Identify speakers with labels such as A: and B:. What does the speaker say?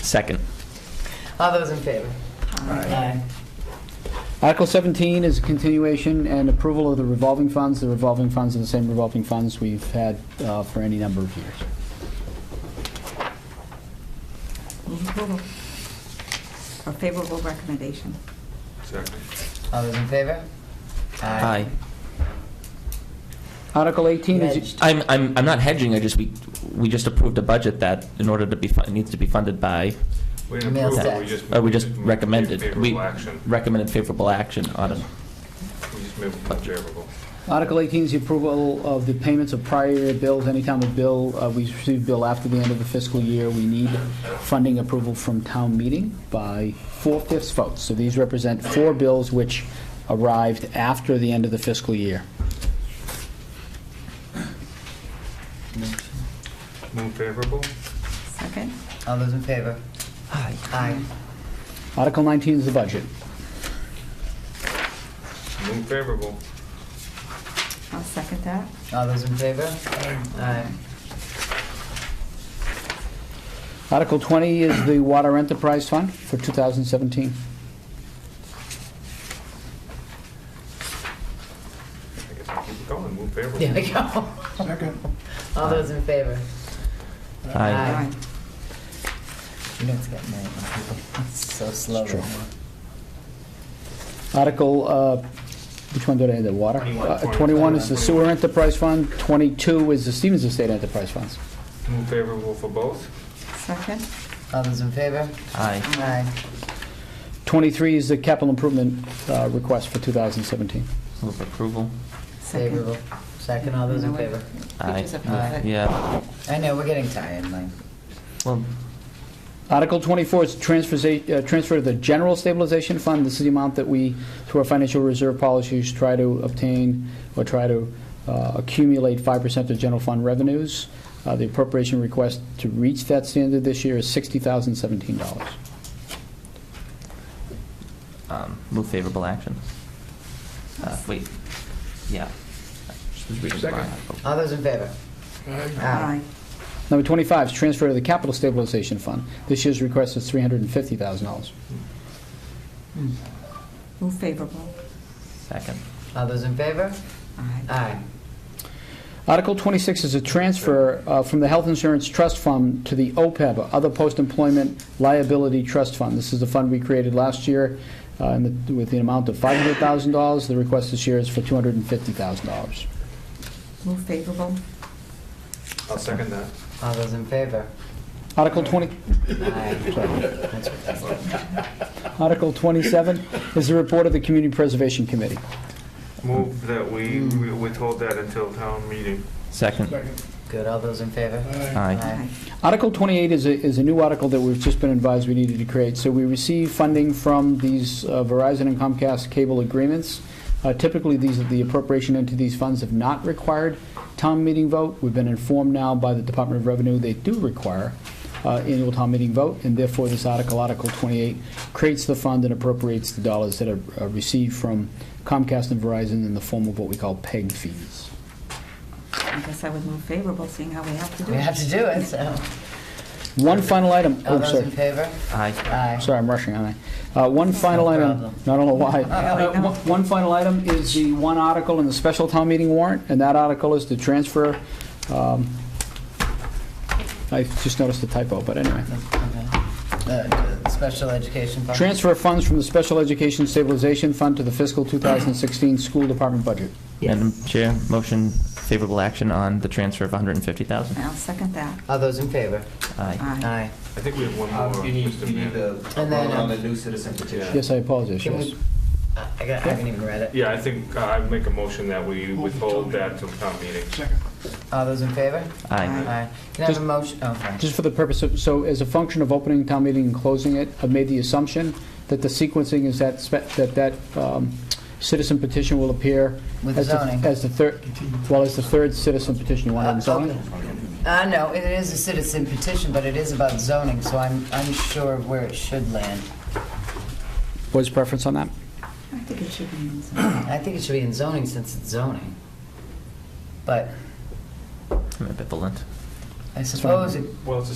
A: Second.
B: All those in favor? Aye.
C: Article 17 is a continuation and approval of the revolving funds. The revolving funds are the same revolving funds we've had uh, for any number of years.
D: Move approval. Or Mm-hmm. favorable recommendation.
E: Second.
B: All those in favor?
A: Aye.
C: Article 18 is,
B: Hedged.
A: I'm, I'm, I'm not hedging, I just, we, we just approved a budget that, in order to be, fu- needs to be funded by,
E: We didn't
B: Mail
E: approve, it,
B: sex.
E: we just.
A: or Oh, we just
E: moved
A: recommended. we
E: Favorable action.
A: Recommended favorable action on it.
E: We just moved favorable.
C: Article 18 is the approval of the payments of prior year bills. Anytime a bill, uh, we receive bill after the end of the fiscal year, we need funding approval from town meeting by four-fifths vote. So these represent four bills which arrived after the end of the fiscal year.
E: Move favorable?
D: Second.
B: All those in favor?
A: Aye.
B: Aye.
C: Article 19 is the budget.
E: Move favorable.
D: I'll second that.
B: All those in favor? Aye.
C: Article 20 is the Water Enterprise Fund for 2017.
E: I guess I'll keep it going, move
B: There
E: favorable.
B: we go.
F: Second.
B: All those in favor?
A: Aye.
B: Aye. You know it's getting late. It's so slow.
C: It's true. Article, uh, which one did I, the water?
E: 21.
C: Uh, 21 is the Sewer Enterprise Fund, 22 is the Stevens Estate Enterprise Funds.
E: Move favorable for both?
D: Second.
B: All those in favor?
A: Aye.
B: Aye.
C: 23 is the capital improvement uh, request for 2017.
A: Move approval.
D: Second.
B: Favorable. Second, all those in favor?
A: Aye.
D: Pictures of
A: Uh,
D: it.
A: Yeah,
B: I know, we're getting tired, Mike.
A: well,
C: Article 24 is transfers- uh, transfer to the General Stabilization Fund. This is the amount that we, through our financial reserve policies, try to obtain or try to uh, accumulate 5% of general fund revenues. Uh, The appropriation request to reach that standard this year is $60,017.
A: um, move favorable action. Uh, wait, yeah. I just was reading the wrong
E: Second.
A: article.
B: All those in favor?
D: Aye.
C: Number 25 is transfer to the Capital Stabilization Fund. This year's request is $350,000.
D: Move favorable.
A: Second.
B: All those in favor?
D: Aye.
B: Aye.
C: Article 26 is a transfer uh, from the Health Insurance Trust Fund to the OPEB, or Other Post-Employment Liability Trust Fund. This is the fund we created last year uh, in the- with the amount of $500,000. The request this year is for $250,000.
D: Move favorable.
E: I'll second that.
B: All those in favor?
C: Article 20,
B: Aye.
C: Article 27 is the report of the Community Preservation Committee.
E: Move that we we withhold that until town meeting.
A: Second.
F: Second.
B: Good, all those in favor?
A: Aye.
B: Aye.
C: Article 28 is a, is a new article that we've just been advised we needed to create. So we receive funding from these uh, Verizon and Comcast cable agreements. Uh, Typically, these are the appropriation into these funds have not required town meeting vote. We've been informed now by the Department of Revenue they do require uh, annual town meeting vote, and therefore this article, Article 28, creates the fund and appropriates the dollars that are uh, received from Comcast and Verizon in the form of what we call PEG fees.
D: I guess I would move favorable, seeing how we have to do
B: We
D: it.
B: have to do it, so.
C: One final item.
B: All
C: oh,
B: those
C: sorry.
B: in favor?
A: Aye.
B: Aye.
C: Sorry, I'm rushing, aren't I? Uh, One final item,
B: problem.
C: I don't know why. Uh,
D: no.
C: One one final item is the one article in the special town meeting warrant, and that article is to transfer, um, I just noticed a typo, but anyway.
B: Okay. Uh, Special education fund?
C: Transfer funds from the Special Education Stabilization Fund to the fiscal 2016 school department budget.
A: Madam Chair, motion favorable action on the transfer of 150,000.
D: I'll second that.
B: All those in favor?
A: Aye.
B: Aye.
E: I think we have one
G: Um,
E: more.
G: You need,
E: Mr.
G: you need
E: Mayor.
G: the,
B: And then,
G: on
B: uh,
G: the new citizen petition.
C: Yes, I apologize,
B: Can
C: yes.
B: we, I I got- I haven't even read it.
E: Yeah, I think uh, I make a motion that we withhold that till town meeting.
F: Second.
B: All those in favor?
A: Aye.
B: Aye. Can I have
C: Just-
B: a motion? oh, sorry.
C: Just for the purpose of, so as a function of opening town meeting and closing it, I've made the assumption that the sequencing is that, spe- that that um, citizen petition will appear
B: With
C: as the-
B: zoning.
C: As the third, well, as the third citizen petition you want on
B: Uh,
C: zoning.
B: okay. Uh, no, it is a citizen petition, but it is about zoning, so I'm unsure of where it should land.
C: What's preference on that?
D: I think it should be in some-
B: I think it should be in zoning since it's zoning. But
A: I'm ambivalent.
B: I suppose it
E: Well, it's a